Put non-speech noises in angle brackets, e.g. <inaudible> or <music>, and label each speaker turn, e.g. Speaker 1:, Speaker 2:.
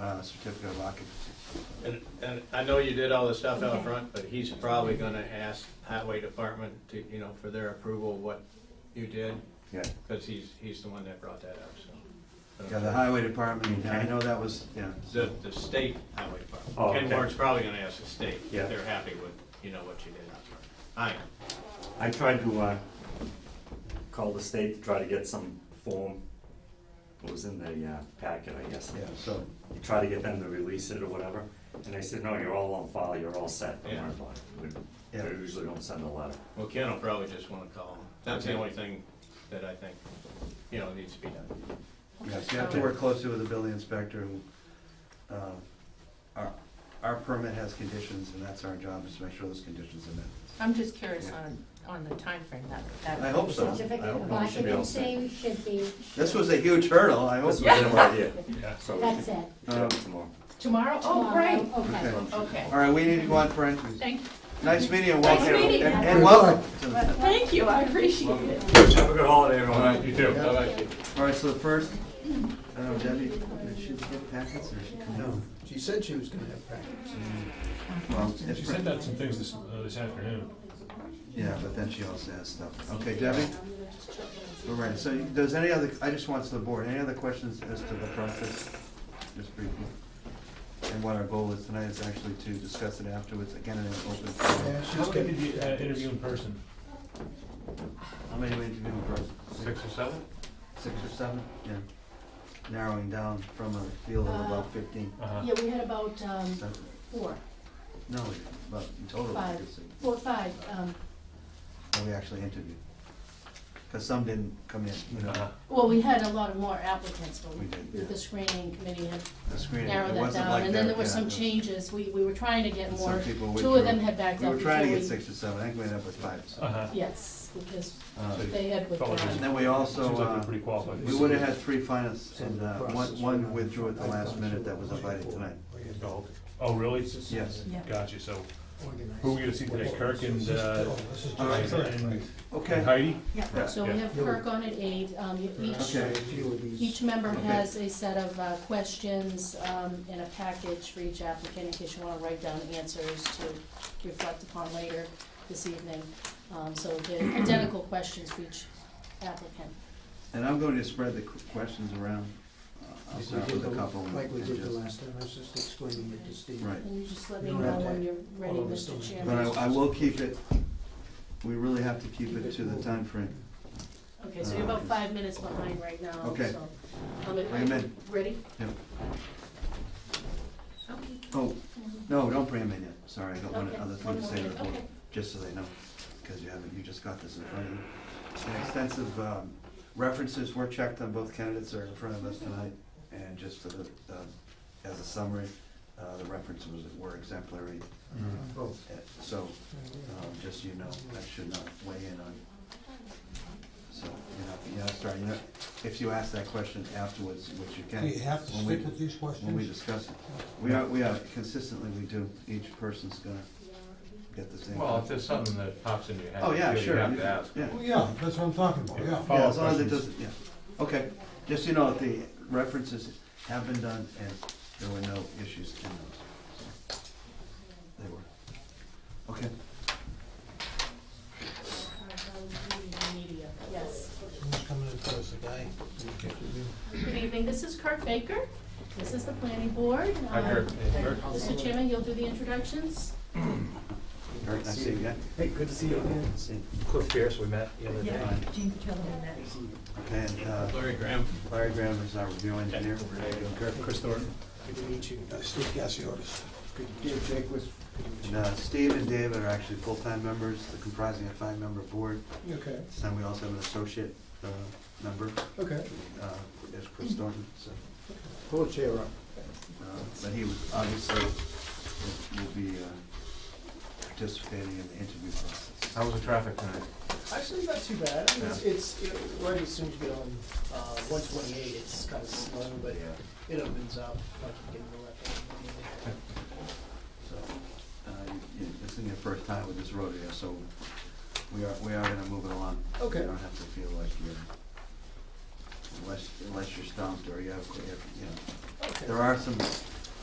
Speaker 1: on a uh, certificate of occupancy.
Speaker 2: And, and I know you did all this stuff out front, but he's probably gonna ask highway department to, you know, for their approval of what you did,
Speaker 1: Yeah,
Speaker 2: because he's, he's the one that brought that up, so. But
Speaker 1: yeah,
Speaker 2: I'm
Speaker 1: the
Speaker 2: sure-
Speaker 1: highway department, I know that was, yeah.
Speaker 2: The, the state highway department.
Speaker 1: Oh,
Speaker 2: Ken
Speaker 1: okay.
Speaker 2: Ward's probably gonna ask the state
Speaker 1: Yeah.
Speaker 2: if they're happy with, you know, what you did out front. I am.
Speaker 3: I tried to, uh, call the state to try to get some form, it was in the, uh, packet, I guess.
Speaker 1: Yeah, so,
Speaker 3: You try to get them to release it or whatever, and they said, no, you're all on file, you're all set, don't worry about it. We-
Speaker 1: Yeah.
Speaker 3: They usually don't send a letter.
Speaker 2: Well, Ken will probably just wanna call him. That's the only thing that I think, you know, needs to be done.
Speaker 1: yes, you have to work closely with the building inspector. and, uh, Our, our permit has conditions, and that's our job, is to make sure those conditions are met.
Speaker 4: I'm just curious on, on the timeframe that, that.
Speaker 1: I hope so.
Speaker 5: Certificate
Speaker 1: I
Speaker 5: of
Speaker 1: hope we should be able to-
Speaker 5: occupancy should be,
Speaker 1: This was a huge hurdle, I hope.
Speaker 3: This was in my idea, so we
Speaker 5: that's
Speaker 3: can
Speaker 5: it.
Speaker 3: do it tomorrow.
Speaker 4: Tomorrow? Oh, great.
Speaker 5: Okay.
Speaker 1: Okay.
Speaker 4: Okay.
Speaker 1: All right, we need to go on for entries.
Speaker 4: Thank,
Speaker 1: Nice meeting you, welcome.
Speaker 4: Nice meeting you.
Speaker 1: And and welcome. to-
Speaker 4: thank you, I appreciate it.
Speaker 3: Have a good holiday, everyone.
Speaker 2: You too. Bye-bye.
Speaker 1: All right, so the first, I don't know, Debbie, did she get packets or she come
Speaker 6: No,
Speaker 1: down?
Speaker 6: she said she was gonna have packets.
Speaker 1: Well,
Speaker 7: She
Speaker 1: it's-
Speaker 7: sent out some things this, uh, this afternoon.
Speaker 1: Yeah, but then she also has stuff. Okay, Debbie? All right, so you- does any other, I just want to the board, any other questions as to the process? Just briefly. And what our goal is tonight is actually to discuss it afterwards, again, in an open forum.
Speaker 6: Yeah, she's
Speaker 7: How
Speaker 6: gonna-
Speaker 7: many did you uh, interview in person?
Speaker 1: How many we interview in person?
Speaker 7: Six or seven?
Speaker 1: Six or seven? Yeah. Narrowing down from a field of
Speaker 5: Uh,
Speaker 1: about fifteen.
Speaker 7: Uh-huh.
Speaker 5: Yeah, we had about um,
Speaker 1: Seven.
Speaker 5: four,
Speaker 1: No, about in total, I
Speaker 5: five,
Speaker 1: think it's six.
Speaker 5: four, five. um,
Speaker 1: that we actually interviewed. Because some didn't come in, you know,
Speaker 7: Uh-huh.
Speaker 5: Well, we had a lot of more applicants, but
Speaker 1: We
Speaker 5: we-
Speaker 1: did.
Speaker 5: the screening committee had
Speaker 1: the screening, it
Speaker 5: narrowed that
Speaker 1: wasn't
Speaker 5: down.
Speaker 1: like that.
Speaker 5: And then there were
Speaker 1: yeah, it
Speaker 5: some
Speaker 1: was-
Speaker 5: changes. We, we were trying to get
Speaker 1: and
Speaker 5: more.
Speaker 1: Some people
Speaker 5: Two of them
Speaker 1: withdrew.
Speaker 5: had backed
Speaker 1: We
Speaker 5: out.
Speaker 1: were trying to
Speaker 5: before
Speaker 1: get
Speaker 5: we-
Speaker 1: six or seven, I think we ended up with five, so.
Speaker 7: Uh-huh.
Speaker 5: Yes, because
Speaker 1: Uh,
Speaker 5: they had
Speaker 1: And
Speaker 5: withdrawn.
Speaker 1: then we also,
Speaker 7: Seems like you're
Speaker 1: uh,
Speaker 7: pretty qualified.
Speaker 1: we would've had three finalists,
Speaker 6: So
Speaker 1: and
Speaker 6: the
Speaker 1: uh,
Speaker 6: process
Speaker 1: one,
Speaker 6: for
Speaker 1: one
Speaker 6: that-
Speaker 1: withdraw at the
Speaker 6: I
Speaker 1: last
Speaker 6: thought
Speaker 1: minute
Speaker 6: she
Speaker 1: that was invited tonight.
Speaker 7: Oh, Oh, really?
Speaker 1: Yes.
Speaker 4: Yeah.
Speaker 7: Gotcha, so
Speaker 6: Organized.
Speaker 7: who were you gonna see today, Kirk and, uh,
Speaker 6: This is
Speaker 1: all right.
Speaker 6: just-
Speaker 7: and and
Speaker 1: Okay,
Speaker 7: Heidi?
Speaker 1: Yeah.
Speaker 5: So we
Speaker 7: Yeah.
Speaker 5: have Kirk on at eight. Um, you- Each,
Speaker 1: Okay.
Speaker 6: A few of these.
Speaker 5: each member
Speaker 1: Okay.
Speaker 5: has a set of uh, questions um, in a package for each applicant in case you want to write down answers to reflect upon later this evening. Um, So
Speaker 1: <clears throat>
Speaker 5: they're identical questions for each applicant.
Speaker 1: and I'm going to spread the qu- questions around. Uh, I'll
Speaker 6: Like we
Speaker 1: start
Speaker 6: did
Speaker 1: with a
Speaker 6: the-
Speaker 1: couple. and-
Speaker 6: Like we
Speaker 1: and
Speaker 6: did the
Speaker 1: just-
Speaker 6: last time, I was just explaining it to Steve.
Speaker 1: Right.
Speaker 5: And you just let me
Speaker 6: You
Speaker 5: know
Speaker 6: don't have to-
Speaker 5: when you're ready,
Speaker 6: all of us
Speaker 5: Mr.
Speaker 6: don't have to.
Speaker 1: But
Speaker 5: Chairman.
Speaker 1: I, I will keep it, we really have to keep it to the time frame.
Speaker 5: Okay, so you're about five minutes behind right now.
Speaker 1: Okay.
Speaker 5: so, um, are you
Speaker 1: Bring 'em in.
Speaker 5: Ready?
Speaker 1: Oh, no, don't bring them in yet, sorry, I got one
Speaker 5: Okay,
Speaker 1: other thing
Speaker 5: one
Speaker 1: to
Speaker 5: more
Speaker 1: say to the
Speaker 5: minute,
Speaker 1: board,
Speaker 5: okay.
Speaker 1: just so they know, because you haven't, you just got this in front of you. And extensive um, references were checked on both candidates that are in front of us tonight, and just for the, um, as a summary, uh, the references were exemplary,
Speaker 6: On Both.
Speaker 1: Uh, so, um, just so you know, I should not weigh in on. So, you know, you know, sorry, you know, if you ask that question afterwards, which you can.
Speaker 6: Do you have to
Speaker 1: when we-
Speaker 6: stick with these
Speaker 1: when we
Speaker 6: questions?
Speaker 1: discuss it. We are, we are, consistently we do, each person's gonna get the same.
Speaker 2: Well, if there's something that pops in your head,
Speaker 1: Oh, yeah,
Speaker 2: you
Speaker 1: sure.
Speaker 2: have to ask.
Speaker 1: Yeah,
Speaker 6: Well, Oh, yeah, that's what I'm talking about, yeah.
Speaker 1: yeah,
Speaker 7: Follow-up
Speaker 1: as long as it
Speaker 7: questions.
Speaker 1: doesn't, yeah, okay, just so you know, the references have been done and there were no issues in those. so They were, okay,
Speaker 5: Media, Yes.
Speaker 6: Who's coming in first, the guy?
Speaker 5: Good evening, this is Kirk Baker. This is the planning board.
Speaker 2: Hi,
Speaker 5: Um,
Speaker 2: Kirk. Hey, Kirk.
Speaker 5: Mr. Chairman, you'll do the introductions?
Speaker 1: all right, nice to see you again.
Speaker 6: Hey, good to see you again.
Speaker 1: See-
Speaker 8: Cliff Pierce, we met the other day.
Speaker 4: Yeah, Gene Patillo and that.
Speaker 1: Okay, and, uh,
Speaker 2: Larry Graham.
Speaker 1: Larry Graham is our review engineer.
Speaker 8: Chris Thornton.
Speaker 6: Good to meet you. Uh, Steve Gassiotis. Good to meet you. Jake was.
Speaker 1: And, uh, Steve and David are actually full-time members, they're comprising a five-member board.
Speaker 6: Okay,
Speaker 1: This time we also have an associate, uh, member.
Speaker 6: okay.
Speaker 1: uh, as Chris Thornton, so,
Speaker 6: Pull a chair up.
Speaker 1: uh, but he was obviously, will be uh, participating in the interview process.
Speaker 2: How was the traffic tonight?
Speaker 9: Actually, not too bad. I mean, it's, it's, you know, right as soon as you get on, uh, one twenty-eight, it's kind of slow, but it opens up, like you can go left.
Speaker 1: So, uh, you- you- this isn't your first time with this road here, so we are, we are gonna move it along.
Speaker 9: Okay.
Speaker 1: You don't have to feel like you're, unless, unless you're stumped or you have, you have- you know,
Speaker 9: Okay.
Speaker 1: there are some